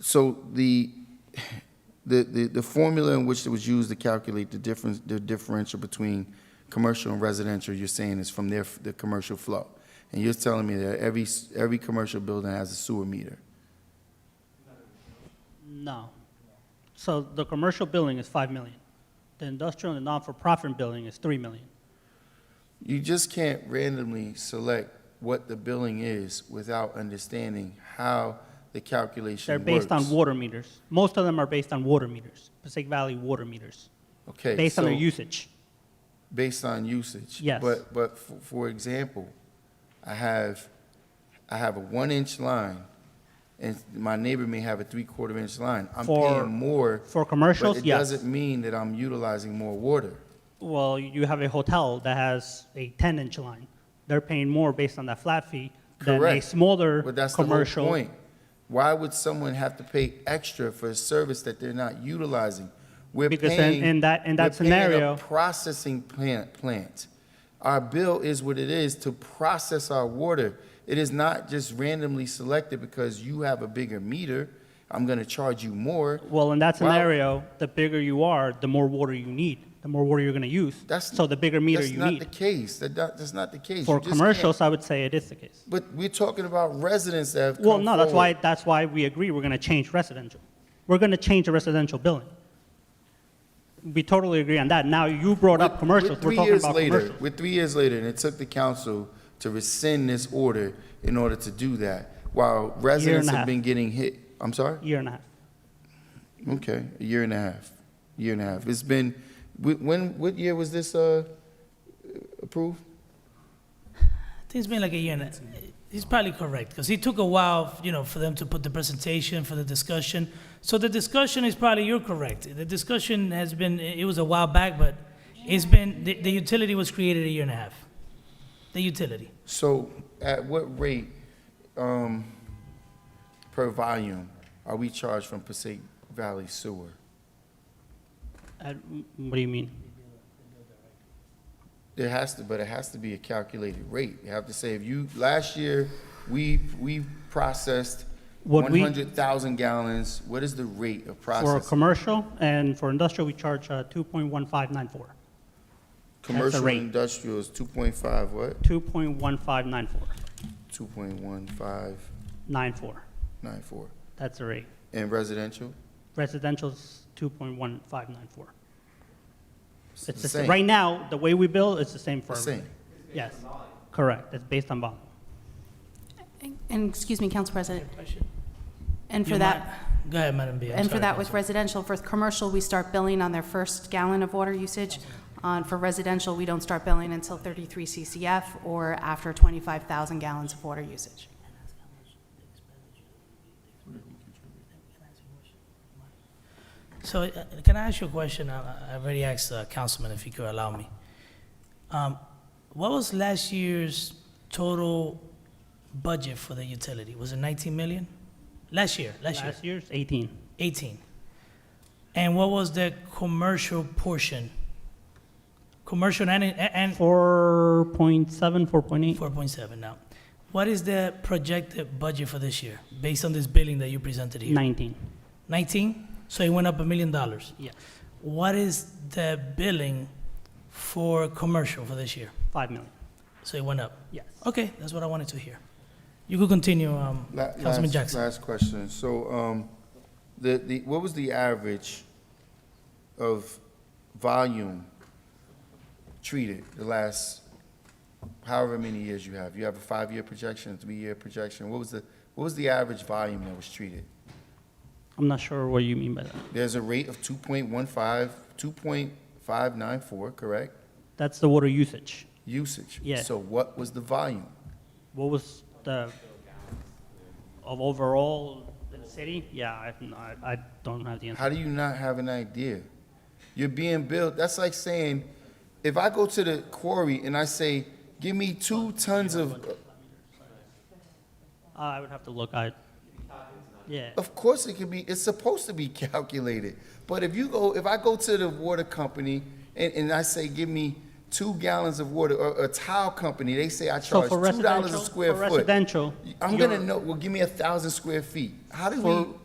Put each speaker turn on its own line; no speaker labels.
So the, the, the, the formula in which it was used to calculate the difference, the differential between commercial and residential, you're saying is from their, the commercial flow. And you're telling me that every, s- every commercial building has a sewer meter.
No. So the commercial building is 5 million. The industrial and non-for-profit building is 3 million.
You just can't randomly select what the billing is without understanding how the calculation
They're
works.
based on water meters. Most of them are based on water meters, Passaic Valley water meters,
Okay,
based on their
so-
usage.
based on usage.
Yes.
But, but for, for example, I have, I have a one-inch line, and my neighbor may have a three-quarter inch line. I'm
For-
paying more.
for commercials,
But it
yes.
doesn't mean that I'm utilizing more water.
Well, you have a hotel that has a 10-inch line. They're paying more based on that flat fee than a
Correct.
smaller
But that's the whole
commercial.
point. Why would someone have to pay extra for a service that they're not utilizing? We're
Because in-
paying.
in that- in that
we're paying a
scenario-
Processing plant, plant. Our bill is what it is to process our water. It is not just randomly selected because you have a bigger meter, I'm gonna charge you more.
Well, in that
Well-
scenario, the bigger you are, the more water you need, the more water you're going to use.
That's.
So the bigger meter
That's
you
not the
need.
case. That, that- that's not the case.
For
You just can't-
commercials, I would say it is the case.
But we're talking about residents that have come
Well, no, that's
forward.
why, that's why we agree we're gonna change residential. We're gonna change the residential billing. We totally agree on that. Now, you brought up
We're- we're
commercials, we're
three
talking
years
about
later-
commercials.
We're three years later, and it took the council to rescind this order in order to do that, while residents have
half.
been getting hit. I'm sorry?
Year and a half.
Okay, a year and a half, year and a half. It's been, wh- when, what year was this uh, approved?
I think it's been like a year and a, he's probably correct because it took a while, you know, for them to put the presentation for the discussion. So the discussion is probably you're correct. The discussion has been it was a while back, but it's been the, the utility was created a year and a half. The utility.
So at what rate um, per volume are we charged from Passaic Valley Sewer?
Uh, What do you mean?
There has to, but it has to be a calculated rate. You have to say, if you, last year, we, we processed
What we-
100,000 gallons, what is the rate of
For a
processing?
commercial and for industrial, we charge uh, 2.1594.
Commercial
rate.
and industrial is 2.5, what?
2.1594,
2.1594.
94, that's the rate.
And residential?
Residential's 2.1594.
It's the
It's the sa-
same.
Right now, the way we bill, it's the same for
The same.
everybody. Yes, correct, it's based on volume.
And, excuse me, Council President, and
You
for that,
might- Go ahead, Madam B. I'm
and for
sorry,
that with
Councilman.
residential, for commercial, we start billing on their first gallon of water usage. On, for residential, we don't start billing until 33 CCF or after 25,000 gallons of water usage.
So uh, can I ask you a question? I, I already asked uh, Councilman if he could allow me. Um, what was last year's total budget for the utility? Was it 19 million? Last year, last, year,
Last year's 18,
18. And what was the commercial portion? Commercial and, and
4.7, 4.8.
4.7 now. What is the projected budget for this year based on this billing that you presented here?
19,
19? So it went up a million dollars.
yes,
What is the billing for commercial for this year?
5 million,
So it went up.
yes.
Okay, that's what I wanted to hear. You could continue, um,
La-
Councilman
last-
Jackson.
Last question. So, um, the, the, what was the average of volume treated the last however many years you have? You have a five-year projection, a three-year projection. What was the, what was the average volume that was treated?
I'm not sure what you mean by that.
There's a rate of 2.15, 2.594, correct?
That's the water usage.
Usage.
Yeah.
So what was the volume?
What was the, of overall the city? Yeah, I, no, I- I don't have the answer.
How do you not have an idea? You're being billed. That's like saying, if I go to the quarry and I say, give me two tons of,
Uh, I would have to look, I, yeah,
of course it can be, it's supposed to be calculated. But if you go, if I go to the water company and, and I say, give me two gallons of water, or a tile company, they say I
so
charge
for
two dollars
residential,
a square
for
foot.
residential.
I'm
you're-
gonna know, well, give me a thousand square feet. How do
For,
we,